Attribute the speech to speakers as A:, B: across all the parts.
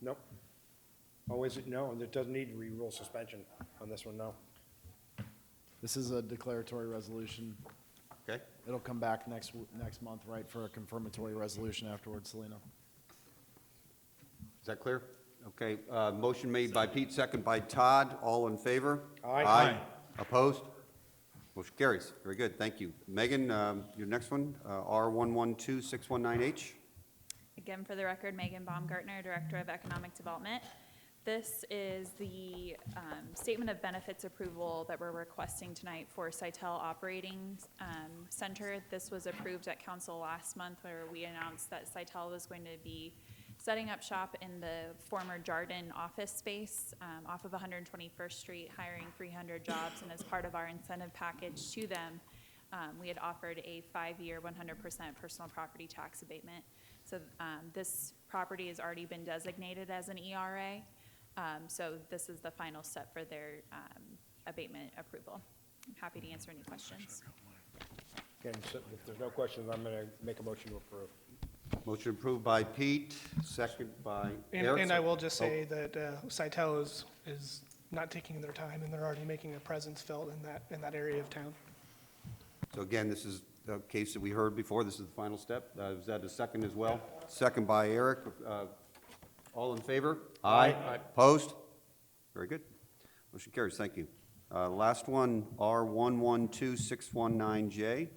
A: Nope. Oh, is it? No, and it doesn't need re-rule suspension on this one, no.
B: This is a declaratory resolution.
C: Okay,
B: It'll come back next, w- next month, right, for a confirmatory resolution afterwards, Selena?
C: is that clear? Okay, uh, motion made by Pete, second by Todd, all in favor?
A: Aye.
C: Opposed? Motion carries, very good, thank you. Megan, um, your next one, R112619H?
D: Again, for the record, Megan Baumgartner, Director of Economic Development. This is the um, statement of benefits approval that we're requesting tonight for Sitel Operating um, Center. This was approved at council last month where we announced that Sitel was going to be setting up shop in the former Jarden office space um, off of 121st Street, hiring 300 jobs. And as part of our incentive package to them, um, we had offered a five-year, 100% personal property tax abatement. So um, this property has already been designated as an ERA, Um, so this is the final step for their um, abatement approval. I'm happy to answer any questions.
A: Again, so if there's no questions, I'm gonna make a motion to approve.
C: Motion approved by Pete, second by
E: And,
C: Eric. oh.
E: and I will just say that uh, Sitel is, is not taking their time, and they're already making a presence felt in that, in that area of town.
C: So again, this is the case that we heard before, this is the final step. Uh, Is that a second as well? Second by Eric. Uh, All in favor? Aye. Opposed? Very good. Motion carries, thank you. Uh, Last one, R112619J.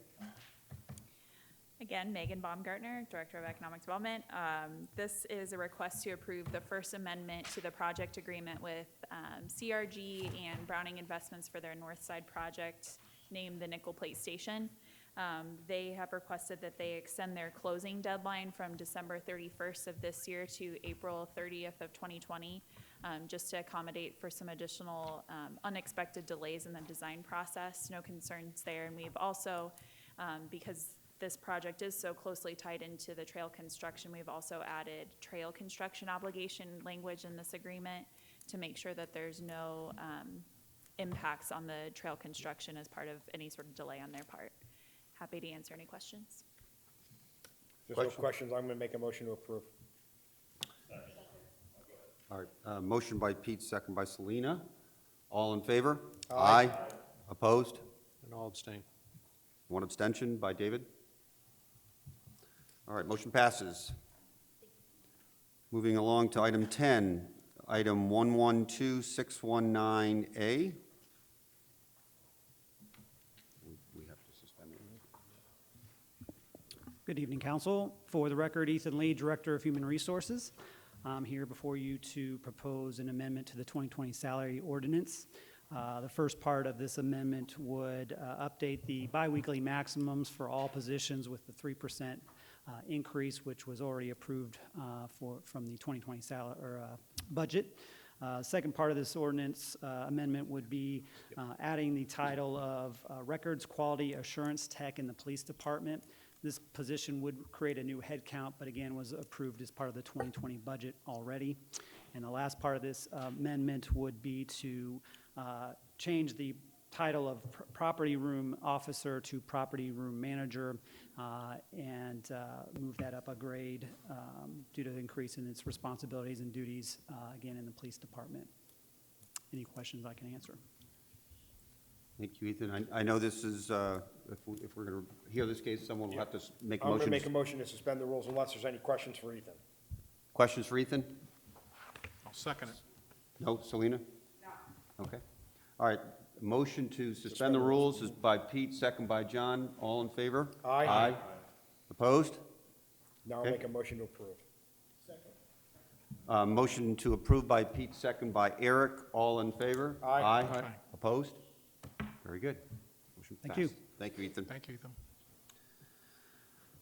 D: Again, Megan Baumgartner, Director of Economic Development. Um, This is a request to approve the First Amendment to the project agreement with um, CRG and Browning Investments for their North Side project named the Nickel Plate Station. Um, They have requested that they extend their closing deadline from December 31st of this year to April 30th of 2020, um, just to accommodate for some additional um, unexpected delays in the design process. No concerns there. And we've also, um, because this project is so closely tied into the trail construction, we've also added trail construction obligation language in this agreement to make sure that there's no um, impacts on the trail construction as part of any sort of delay on their part. Happy to answer any questions.
A: If there's no
C: Question.
A: questions, I'm gonna make a motion to approve.
C: All right, uh, motion by Pete, second by Selena. All in favor?
A: Aye.
C: Opposed?
F: And I'll abstain.
C: One abstention by David. All right, motion passes. Moving along to item 10, item 112619A. We have to suspend it.
G: Good evening, Council. For the record, Ethan Lee, Director of Human Resources. I'm here before you to propose an amendment to the 2020 salary ordinance. Uh, The first part of this amendment would uh, update the biweekly maximums for all positions with the 3% uh, increase, which was already approved uh, for, from the 2020 salary, or uh, budget. Uh, Second part of this ordinance uh, amendment would be uh, adding the title of uh, Records Quality Assurance Tech in the Police Department. This position would create a new headcount, but again, was approved as part of the 2020 budget already. And the last part of this uh, amendment would be to uh, change the title of pr- property room officer to property room manager uh, and uh, move that up a grade um, due to the increase in its responsibilities and duties, uh, again, in the police department. Any questions I can answer?
C: Thank you, Ethan. I I know this is, uh, if we- if we're going to hear this case, someone will have to s- make
A: I'm gonna make a motion
C: motions.
A: to suspend the rules unless there's any questions for Ethan.
C: Questions for Ethan?
F: I'll second it.
C: No, Selena? No. Okay. All right, motion to suspend the rules is by Pete, second by John. All in favor?
A: Aye.
C: Aye. Opposed?
A: Now I'll
C: Okay.
A: make a motion to approve.
C: Uh, Motion to approve by Pete, second by Eric. All in favor?
A: Aye.
F: Aye.
C: Opposed? Very good. Motion
G: Thank you.
C: passed. Thank you, Ethan.
F: Thank you, Ethan.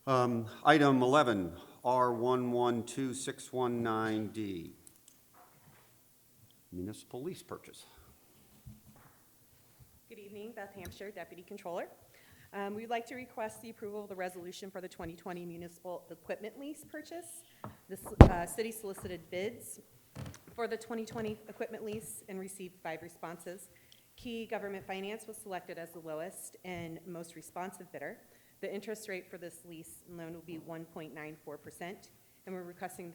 C: Um, Item 11, R112619D, municipal lease purchase.
H: Good evening, Beth Hampshire, Deputy Controller. Um, We'd like to request the approval of the resolution for the 2020 municipal equipment lease purchase. The s- uh, city solicited bids for the 2020 equipment lease and received five responses. Key Government Finance was selected as the lowest and most responsive bidder. The interest rate for this lease and loan will be 1.94%, and we're requesting